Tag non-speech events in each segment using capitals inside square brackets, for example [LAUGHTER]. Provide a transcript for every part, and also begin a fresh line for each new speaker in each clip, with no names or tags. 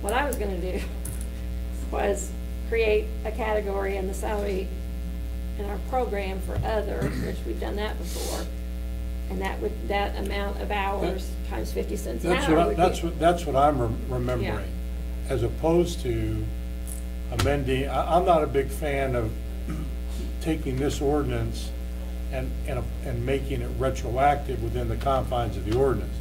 What I was gonna do [LAUGHS] was create a category in the salary in our program for other, which we've done that before. And that would, that amount of hours times fifty cents an
That's
hour
what, I-
would be.
that's what, that's what I'm rem- remembering, as opposed to amending, I, I'm not a big fan of taking this ordinance and, and, and making it retroactive within the confines of the ordinance.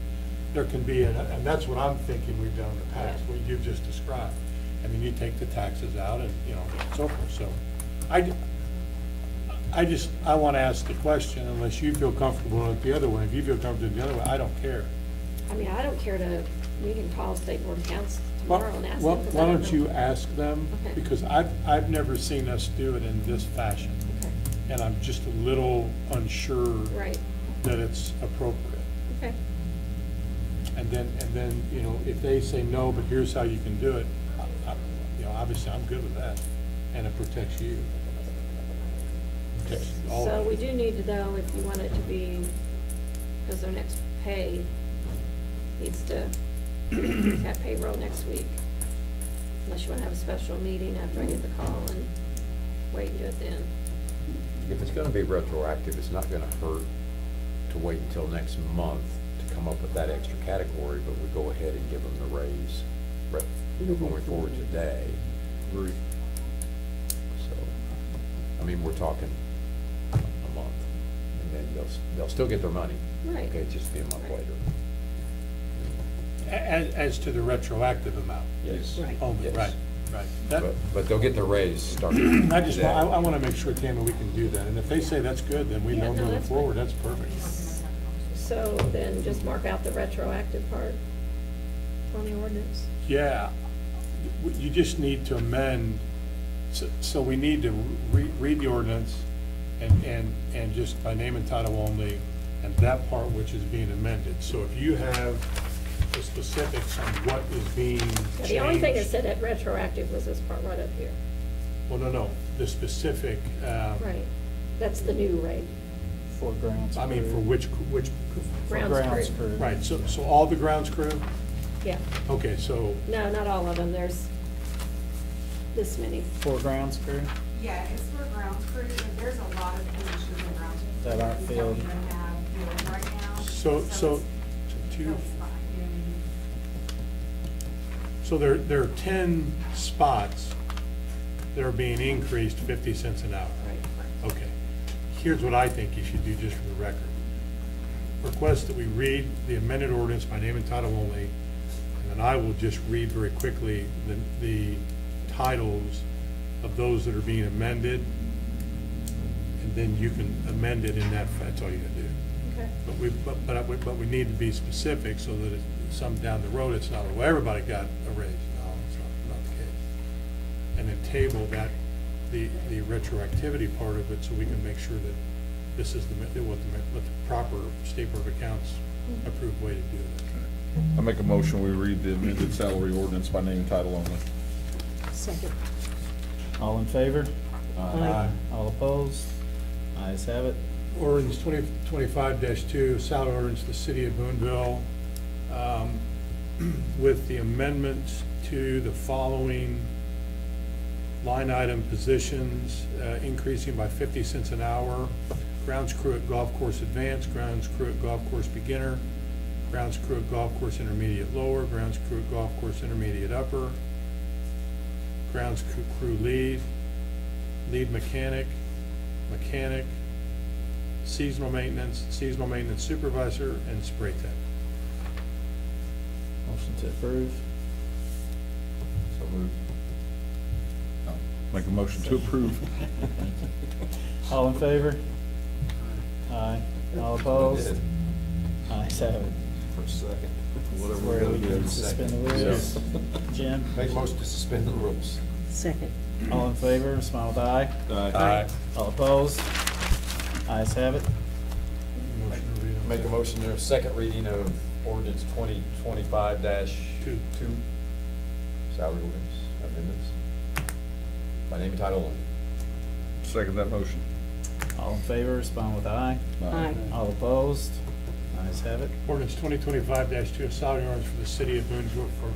There can be, and, and that's what I'm thinking we've done in the past, what you've just described. I mean, you take the taxes out and, you know, and so forth, so. I, d- I just, I want to ask the question, unless you feel comfortable with the other one. If you feel comfortable with the other one, I don't care.
I mean, I don't care to, we can call State Board of Accounts
Why
tomorrow and ask
why-
them. 'cause I
why don't
know.
you ask them?
Okay.
Because I've, I've never seen us do it in this fashion,
Okay,
and I'm just a little unsure
Right,
that it's appropriate.
okay,
And then, and then, you know, if they say no, but here's how you can do it, I- I- you know, obviously, I'm good with that, and it protects you. Protects all
so
of
we
us.
do need to though, if you want it to be, because their next pay needs to, have payroll next week. Unless you want to have a special meeting after I get the call and wait and do it then.
If it's gonna be retroactive, it's not gonna hurt to wait until next month to come up with that extra category, but we go ahead and give them the raise re- going forward today.
Agree.
So, I mean, we're talking a month, and then they'll, s- they'll still get their money.
Right.
Okay, just be a month
Right.
later.
A- As, as to the retroactive amount
Yes.
Right.
only,
Yes.
right, right. That-
But, but they'll get their raise
[CLEARS THROAT]
starting
I just,
today.
wa- I, I want to make sure, Tammy, we can do that, and if they say that's good, then we
Yeah,
know
no,
moving
that's fine.
forward, that's perfect.
So then just mark out the retroactive part on the ordinance.
Yeah, W- you just need to amend, so, so we need to re, read the ordinance and, and, and just by name and title only, and that part which is being amended. So if you have the specifics on what is being
Now,
changed.
The only thing that said that retroactive was this part right up here.
Well, no, no, the specific, uh,
Right, that's the new rate,
For grounds.
I mean, for
crew.
which, which,
For
grounds crew.
crew.
right, so, so all the grounds crew?
yeah.
Okay, so
No, not all of them, there's this many.
For grounds crew,
Yeah, it's for grounds crew, but there's a lot of positions in grounds. crew
That aren't
we don't
filled.
even have filled right now.
So, so,
it's-
two,
So it's fine, you know what I mean?
so there, there are ten spots that are being increased fifty cents an hour. Okay, here's what I think you should do just for the record. Request that we read the amended ordinance by name and title only, and then I will just read very quickly the, the titles of those that are being amended, and then you can amend it in that, fa- that's all you gotta do.
Okay.
But we, but, but I- but we need to be specific so that it, some down the road, it's not, well, everybody got a raise. No, it's not, not the case. And then table that, the, the retroactivity part of it so we can make sure that this is the, me- that what the, me- what the proper State Board of Accounts approved way to do it.
I make a motion, we read the amended salary ordinance by name and title only.
Second.
all in favor?
Aye.
All opposed? Ayes have it.
Ordinance twenty, twenty-five two, salary ordinance to the city of Boonville, um, [CLEARS THROAT] with the amendments to the following line item positions, uh, increasing by fifty cents an hour. Grounds crew at golf course advanced, grounds crew at golf course beginner, grounds crew at golf course intermediate lower, grounds crew at golf course intermediate upper, grounds crew, crew lead, lead mechanic, mechanic, seasonal maintenance, seasonal maintenance supervisor, and spray tech.
Motion to approve.
So moved.
Make a motion to approve.
All in favor? Aye. All opposed? Ayes have it.
For a second.
This is where we can suspend the rules. Jim,
Make motion to suspend the rules.
Second.
all in favor, smile with aye.
Aye.
All opposed? Ayes have it.
Motion to read on
Make a motion to second reading of ordinance twenty twenty-five dash
Two.
two, salary ordinance amendments. By name and title only.
Second that motion.
All in favor, respond with aye.
Aye.
All opposed? Ayes have it.
Ordinance twenty twenty-five two, salary ordinance for the city of Boonville for